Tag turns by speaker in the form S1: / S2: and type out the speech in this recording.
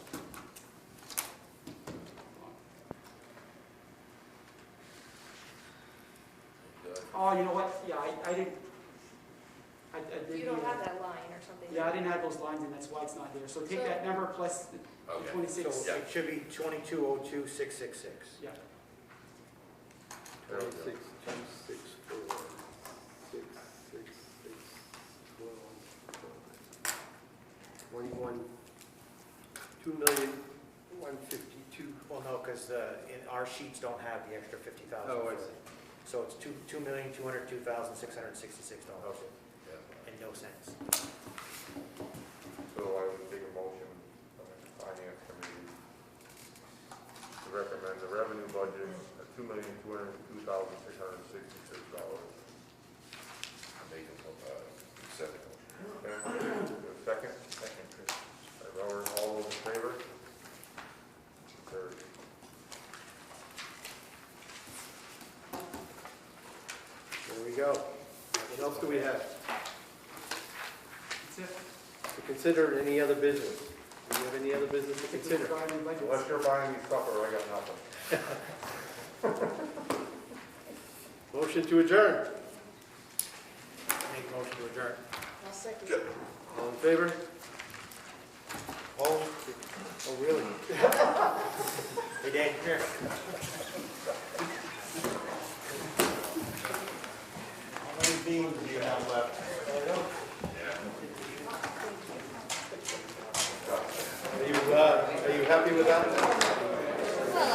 S1: oh, you know what, yeah, I, I didn't, I, I didn't.
S2: You don't
S1: either.
S2: have that line or something.
S1: Yeah, I didn't have those lines and that's why it's not there. So take
S2: So-
S1: that number plus the
S3: Okay.
S1: twenty-six.
S4: So it should be twenty-two oh two, six, six, six.
S1: Yeah,
S3: There we go.
S5: Six, two, six, four, six, six, six, twelve, twenty-one, two million, one fifty-two.
S4: Well, no, because the, in, our sheets don't have the extra fifty thousand.
S5: Oh, I see.
S4: So it's two, two million, two hundred, two thousand, six hundred and sixty-six dollars
S3: Okay, yeah.
S4: and no cents.
S3: So I would make a motion, uh, finance committee, to recommend the revenue budget of two million, two hundred and two thousand, six hundred and sixty-six dollars. Make a, uh, second. Second? Second. Robert, all those in favor? Carried.
S5: There we go. What else do we have?
S1: that's it.
S5: To consider and any other business? Do you have any other business to consider?
S1: Regarding the budgets.
S3: Unless you're buying me supper, I got nothing.
S5: Motion to adjourn.
S4: Make a motion to adjourn.
S2: I'll second it.
S5: All in favor?
S4: Oh, oh, really? Hey, Dan, come here. How many beans do you have left?
S5: Are you, uh, are you happy with that?